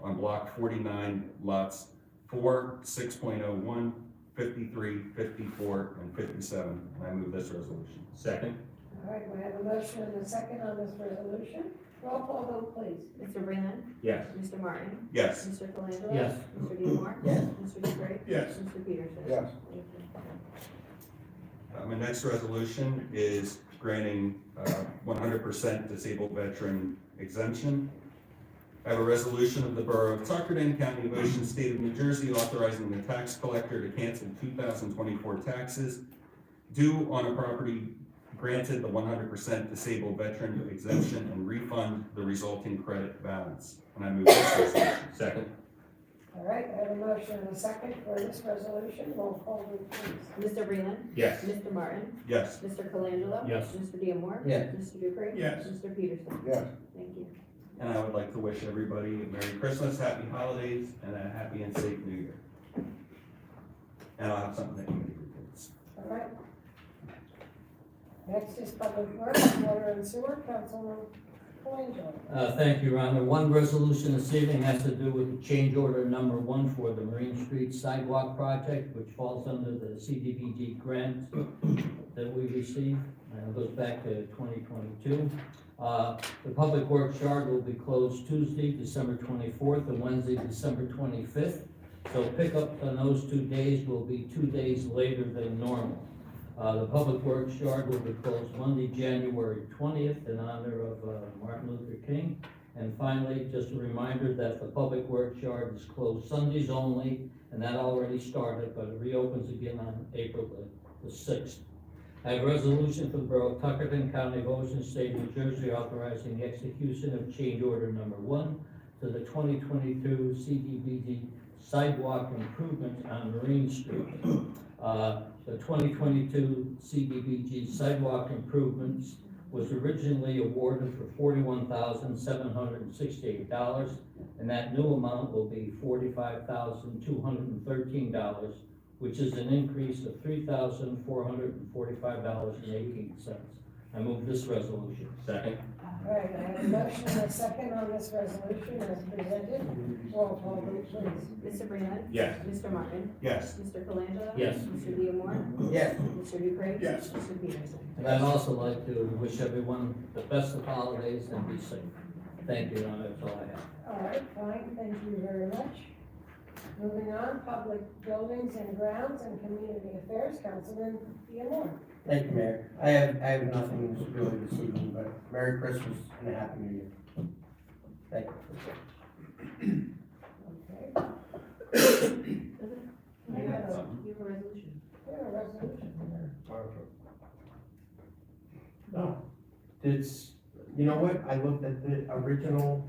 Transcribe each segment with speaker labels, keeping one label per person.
Speaker 1: on block forty-nine lots four, 6.01, 53, 54, and fifty-seven, and I move this resolution.
Speaker 2: Second?
Speaker 3: All right, we have a motion and a second on this resolution. Roll call vote, please.
Speaker 4: Mr. Breland.
Speaker 2: Yes.
Speaker 4: Mr. Martin.
Speaker 1: Yes,
Speaker 4: Mr. Colangelo.
Speaker 5: Yes.
Speaker 4: Mr. Diemar.
Speaker 5: Yes.
Speaker 4: Mr. Dupre.
Speaker 6: Yes.
Speaker 4: Mr. Peterson.
Speaker 6: Yes.
Speaker 4: Thank you.
Speaker 1: Uh, my next resolution is granting, uh, one hundred percent disabled veteran exemption. I have a resolution of the Borough of Tuckerton, County of Ocean, State of New Jersey, authorizing the tax collector to cancel two thousand twenty-four taxes due on a property granted the one hundred percent disabled veteran exemption and refund the resulting credit balance. And I move this resolution.
Speaker 2: Second?
Speaker 3: All right, we have a motion and a second for this resolution. Roll call vote, please.
Speaker 4: Mr. Breland.
Speaker 2: Yes.
Speaker 4: Mr. Martin.
Speaker 1: Yes.
Speaker 4: Mr. Colangelo.
Speaker 5: Yes.
Speaker 4: Mr. Diemar.
Speaker 5: Yes.
Speaker 4: Mr. Dupre.
Speaker 6: Yes.
Speaker 4: Mr. Peterson.
Speaker 6: Yes.
Speaker 4: Thank you.
Speaker 1: And I would like to wish everybody a Merry Christmas, Happy Holidays, and a happy and safe New Year. And I'll have something that you can reports.
Speaker 3: All right. Next is public works, water and sewer, Councilman Colangelo.
Speaker 5: Uh, Thank you, Your Honor. One resolution this evening has to do with the change order number one for the Marine Street Sidewalk Project, which falls under the CDBG grant that we received, and it goes back to twenty twenty-two. Uh, The Public Works Yard will be closed Tuesday, December twenty-fourth, and Wednesday, December twenty-fifth. So pickup on those two days will be two days later than normal. Uh, the Public Works Yard will be closed Monday, January twentieth, in honor of, uh, Martin Luther King. And finally, just a reminder that the Public Works Yard is closed Sundays only, and that already started, but it reopens again on April the, the sixth. I have a resolution for the Borough of Tuckerton, County of Ocean, State of New Jersey, authorizing the execution of change order number one to the twenty twenty-two CDBG sidewalk improvement on Marine Street. Uh, the 2022 CDBG sidewalk improvements was originally awarded for $41,768, and that new amount will be $45,213, which is an increase of $3,445.18. I move this resolution.
Speaker 2: Second?
Speaker 3: All right, I have a motion and a second on this resolution as presented. Roll call vote, please.
Speaker 4: Mr. Breland.
Speaker 2: Yes.
Speaker 4: Mr. Martin.
Speaker 1: Yes,
Speaker 4: Mr. Colangelo.
Speaker 5: Yes.
Speaker 4: Mr. Diemar.
Speaker 5: Yes.
Speaker 4: Mr. Dupre.
Speaker 6: Yes.
Speaker 4: Mr. Peterson.
Speaker 5: And I'd also like to wish everyone the best of holidays and be safe. Thank you, Your Honor, that's all I have.
Speaker 3: All right, fine, thank you very much. Moving on, public buildings and grounds and community affairs, Councilman Diemar.
Speaker 7: Thank you, Mayor. I have, I have nothing really this evening, but Merry Christmas and a Happy New Year. Thank you.
Speaker 3: Okay,
Speaker 1: I
Speaker 4: You have
Speaker 1: got
Speaker 4: a-
Speaker 1: something.
Speaker 4: you have a resolution.
Speaker 3: we have a resolution.
Speaker 7: No, it's, you know what? I looked at the original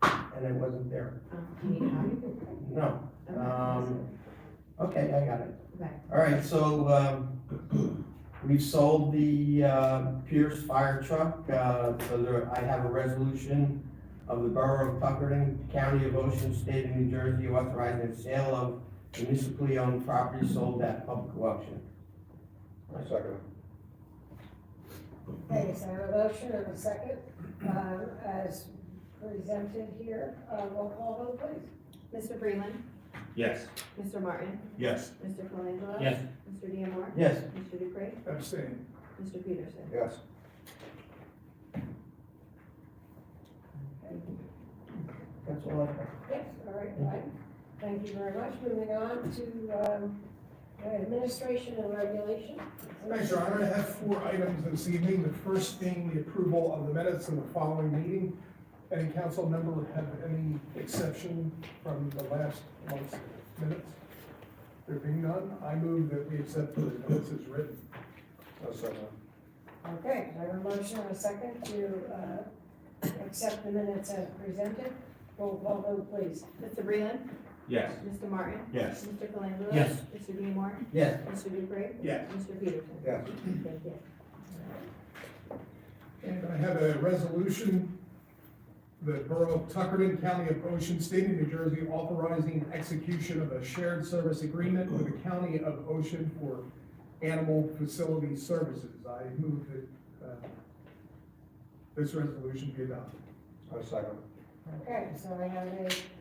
Speaker 7: and it wasn't there.
Speaker 4: Um, you need a copy?
Speaker 7: No.
Speaker 4: Okay.
Speaker 7: Um, Okay, I got it.
Speaker 4: Okay.
Speaker 7: All right, so, um, we've sold the, uh, Pierce fire truck, uh, so there, I have a resolution of the Borough of Tuckerton, County of Ocean, State of New Jersey, authorizing the sale of municipally owned property sold at public auction.
Speaker 6: Second.
Speaker 3: Okay, so I have a motion and a second, um, as presented here. Uh, roll call vote, please.
Speaker 4: Mr. Breland.
Speaker 2: Yes.
Speaker 4: Mr. Martin.
Speaker 1: yes,
Speaker 4: Mr. Colangelo.
Speaker 5: Yes.
Speaker 4: Mr. Diemar.
Speaker 7: Yes,
Speaker 4: Mr. Dupre.
Speaker 6: Abstain.
Speaker 4: Mr. Peterson.
Speaker 6: Yes.
Speaker 7: that's all I have.
Speaker 3: Yes, all right, fine. Thank you very much. Moving on to, um, administration and regulation.
Speaker 6: Thanks, Your Honor. I have four items this evening. The first being the approval of the minutes of the following meeting. Any council member have any exception from the last month's minutes? There being none, I move that we accept the minutes as written.
Speaker 3: Okay, I have a motion and a second to, uh, accept the minutes as presented. Roll call vote, please.
Speaker 4: Mr. Breland.
Speaker 2: Yes.
Speaker 4: Mr. Martin.
Speaker 1: yes.
Speaker 4: Mr. Colangelo.
Speaker 5: Yes.
Speaker 4: Mr. Diemar.
Speaker 7: Yes.
Speaker 4: Mr. Dupre.
Speaker 6: Yes.
Speaker 4: Mr. Peterson.
Speaker 6: Yes.
Speaker 4: Thank you.
Speaker 6: And I have a resolution, the Borough of Tuckerton, County of Ocean, State of New Jersey, authorizing execution of a shared service agreement with the County of Ocean for animal facility services. I move that, uh, this resolution be adopted.
Speaker 3: Okay, so I have a